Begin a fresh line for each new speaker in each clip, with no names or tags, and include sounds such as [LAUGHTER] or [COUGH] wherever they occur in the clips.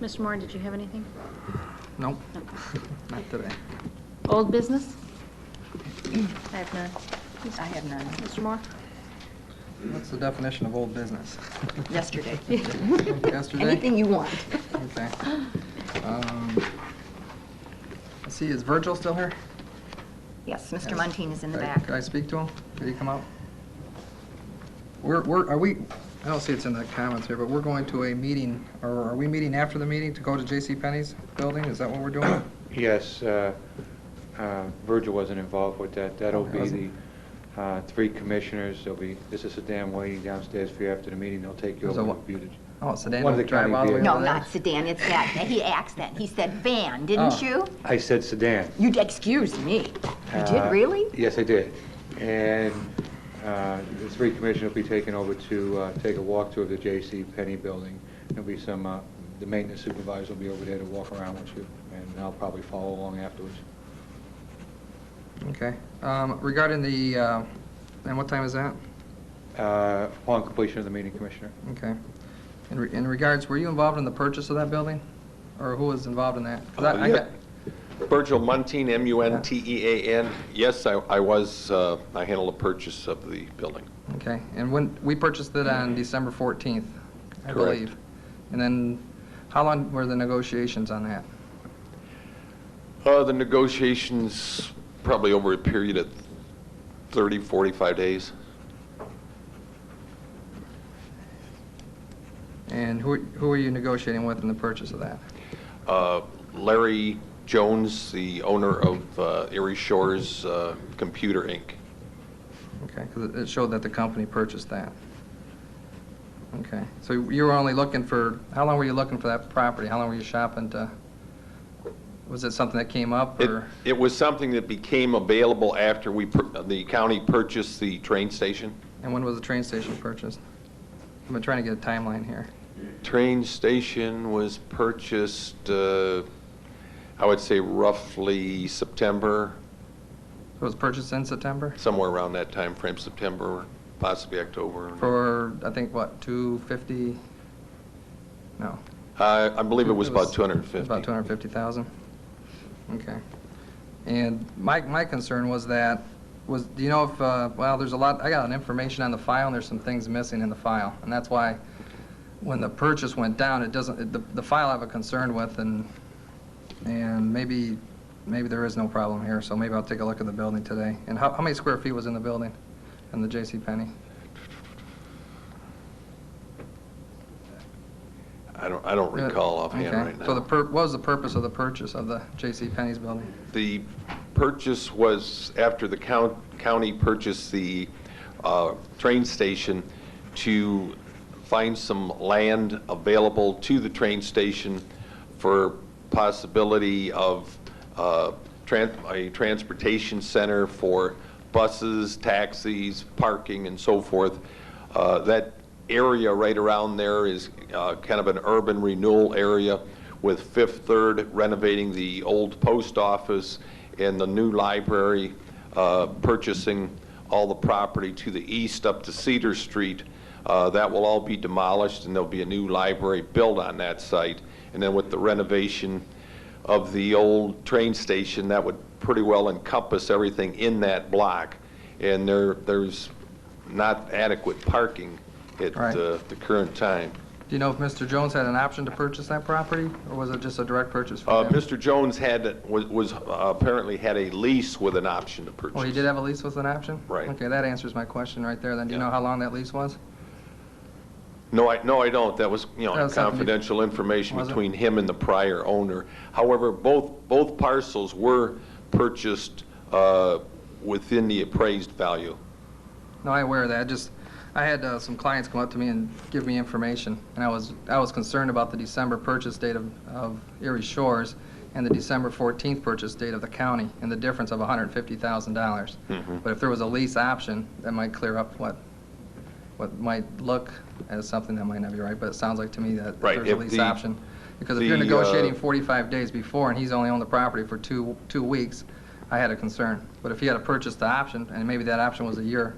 Mr. Moore, did you have anything?
[LAUGHS]
Nope,
No.
not today.
Old business? I have none.
I have none.
Mr. Moore?
What's the definition of old business?
[LAUGHS]
Yesterday.
[LAUGHS] Yesterday?
Anything you want.
Okay. Um, Let's see, is Virgil still here?
Yes,
Yes.
Mr. Muntean is in the
Could I-
back.
Could I speak to him? Could he come up? We're, we're, are we, I don't see it's in the comments here, but we're going to a meeting, or are we meeting after the meeting to go to J.C. Penney's building? Is that what we're doing?
Yes, uh, uh, Virgil wasn't involved with that. That'll be the
Wasn't.
uh, three commissioners, there'll be, this is Sedan waiting downstairs for you after the meeting, they'll take you
So
over and
what-
review it.
Oh, so Dan
One of
will
the
drive
county
all the way
vehicles.
No,
over there?
not sedan, it's that, that he asked that. He said van,
Oh.
didn't you?
I said Sedan.
You, d- excuse me. You
Uh,
did, really?
Yes, I did. And uh, the three commissioners will be taken over to uh, take a walkthrough of the J.C. Penney building. There'll be some, uh, the maintenance supervisor will be over there to walk around with you, and I'll probably follow along afterwards.
Okay. Um, Regarding the, uh, and what time is that?
Uh, Upon completion of the meeting, Commissioner.
Okay. In re- in regards, were you involved in the purchase of that building? Or who was involved in that? 'Cause I- I
Uh, yeah.
got-
Virgil Muntean, M-U-N-T-E-A-N. E Yes, I I was, uh, I handled the purchase of the building.
Okay, and when, we purchased it on December 14th, I
Correct.
believe. And then, how long were the negotiations on that?
Uh, The negotiations, probably over a period of 30, 45 days.
And who who were you negotiating with in the purchase of that?
Uh, Larry Jones, the owner of uh, Erie Shores uh, Computer, Inc.
Okay, because it showed that the company purchased that. Okay, so you were only looking for, how long were you looking for that property? How long were you shopping to, was it something that came up,
It-
or?
It was something that became available after we, pur- the county purchased the train station.
And when was the train station purchased? I've been trying to get a timeline here.
Train station was purchased, uh, I would say roughly September,
So It was purchased in September
somewhere around that time frame, September, possibly October.
for, I think, what, 250? No.
I I believe it was about 250.
About 250,000? Okay. And my, my concern was that, was, do you know if, uh, well, there's a lot, I got an information on the file, and there's some things missing in the file. And that's why, when the purchase went down, it doesn't, it- the, the file I have a concern with, and, and maybe, maybe there is no problem here, so maybe I'll take a look at the building today. And how, how many square feet was in the building, in the J.C. Penney?
I don't, I don't recall offhand right now.
So the, pur- what was the purpose of the purchase of the J.C. Penney's building?
The purchase was after the count- county purchased the uh, train station to find some land available to the train station for possibility of uh, tran- a transportation center for buses, taxis, parking, and so forth. Uh, That area right around there is uh, kind of an urban renewal area with Fifth Third renovating the old post office and the new library, uh, purchasing all the property to the east up to Cedar Street. Uh, That will all be demolished, and there'll be a new library built on that site. And then with the renovation of the old train station, that would pretty well encompass everything in that block. And there, there's not adequate parking at
Right.
uh, the current time.
Do you know if Mr. Jones had an option to purchase that property, or was it just a direct purchase
Uh,
for him?
Mr. Jones had, was- was, uh, apparently had a lease with an option to purchase.
Oh, he did have a lease with an option?
Right.
Okay, that answers my question right there, then. Do you
Yeah.
know how long that lease was?
No, I, no, I don't. That was, you
That
know,
was something you-
confidential information
Was it?
between him and the prior owner. However, both, both parcels were purchased uh, within the appraised value.
No, I aware of that, just, I had uh, some clients come up to me and give me information, and I was, I was concerned about the December purchase date of of Erie Shores and the December 14th purchase date of the county, and the difference of $150,000.
Mm-hmm.
But if there was a lease option, that might clear up what, what might look as something that might not be right, but it sounds like to me that
Right,
there's a
if
lease
the-
option. Because if you're
the, uh,
negotiating 45 days before, and he's only owned the property for two, two weeks, I had a concern. But if he had purchased the option, and maybe that option was a year,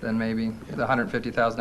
then maybe the $150,000